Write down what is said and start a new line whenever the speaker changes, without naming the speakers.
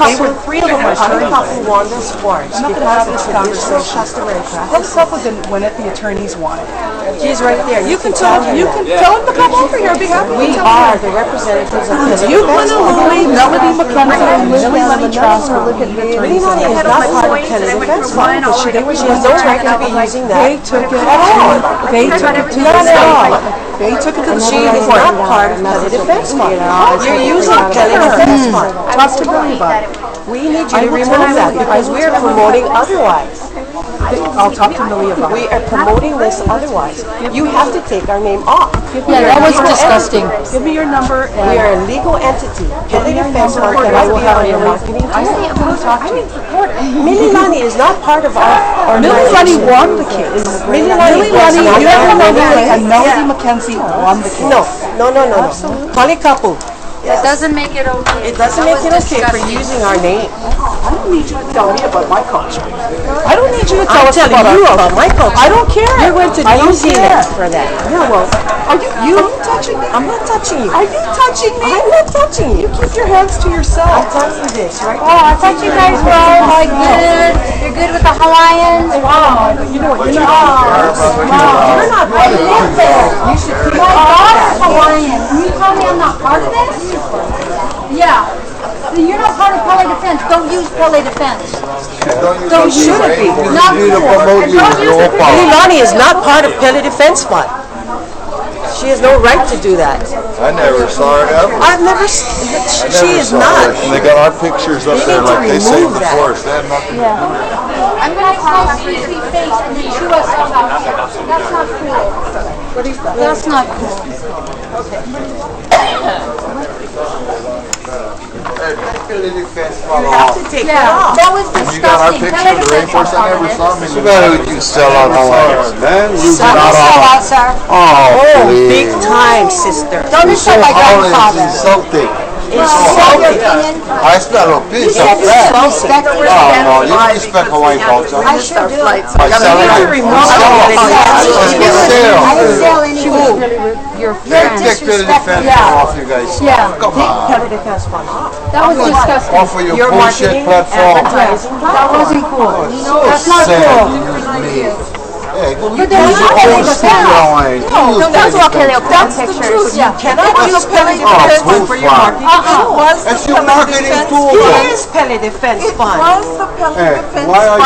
They were three of them were turned off of Wanda Swartz
I'm not gonna
because
have
of
this
traditional
conversation.
customary practice.
Hooks up with the, whenever the attorneys want it.
He's right there.
You can tell, you can tell him to come over here, I'd be happy to
We
tell him.
are the representatives of the.
You want to Louis Melody McCumberland, Louis Money Trust,
Minnie Money is not part of Kennedy's defense law, but she didn't, she has no right to be using
They
that.
took it
At all.
They took it to the
Not at all.
state. They took it to the
She
state
is
court.
not part of Kennedy defense law. You're using Kennedy defense law.
Talk to Billy about it.
We need you to
will
remove
tell
that
you.
because
I will
we are
tell you.
promoting otherwise.
I'll talk to Millie about
We
it.
are promoting this otherwise. You have to take our name off.
Yeah, that was disgusting.
Give me your number
We
and
are a legal entity, pending a fence mark, and I will have your marketing team. Millie Lani is not part of our.
Millie Lunny won the case.
Millie Lani was
Millie Lunny,
not
you have
part
to
of
remember,
our-
and Melody McKenzie won the case.
No, no, no, no, no. Polly Kapu,
That doesn't make it okay.
it doesn't make it okay for using our name.
I don't need you to tell me about my culture. I don't need you to
I'm
tell us
telling
about
you
our
about my culture.
I don't care.
You went to
I
New
don't care.
Zealand for that.
Yeah, well, are you, you, are you touching me?
I'm not touching you.
Are you touching me?
I'm not touching you.
Keep your hands to
I'll
yourself.
tell you this, right?
Oh, I thought you guys were all like good. You're good with the Hawaiians.
Oh, you know what, you're not.
You're not. I live there. You should keep My daughter's Hawaiian. Can you tell me I'm not part of this? Yeah. So you're not part of Pele Defense. Don't use Pele Defense.
Don't use
should
it be?
Not
You need to
cool.
promote
And
you,
don't
it's
use
your
the-
fault.
Milani is not part of Pele Defense Fund. She has no right to do that.
I never saw it ever.
I've never, s-
I
she
never
is
saw
not.
it. And they got our pictures up
They
there
need to
like they say
remove
the
that.
forest. They have nothing to do with it.
I'm gonna call Cece face and then chew us all out here. That's not cool. That's not cool.
You have to take it
Yeah,
off.
that was
You got our
disgusting.
picture
Pele
of the
Defense was
rainforest. I
part of
never
it.
saw me. Look at who you sell out Hawaiians, man. You
Don't sell out, sir.
Oh,
Oh,
please.
big time, sister.
Don't insult my
Hawaiians
grandfather.
insulting.
Sell your
Insulting.
opinion.
I not a piece of that.
Respect
No, no, you don't respect Hawaiian culture.
I sure do.
By selling
need to
it.
remove
Sell
it.
it. It's for sale.
I didn't sell any. Your
Take
friend.
the defense
Yeah.
off you guys.
Yeah.
Come on.
Pele Defense Fund off.
That was disgusting.
Off of your
Your
bullshit
marketing,
platform.
advertising.
That wasn't cool. That's not
Sad,
cool.
you mean. Hey, go use
But they're
your
not
own
Pele
slang. Use
That's
that
what Kelly
defense.
O'Connor pictures. Yeah.
Cannot use Pele
Oh,
Defense Fund for your
bullfrog.
marketing.
Uh-huh.
It was the
That's your
Pele
marketing
Defense-
tool.
It is Pele Defense Fund.
Hey, why are you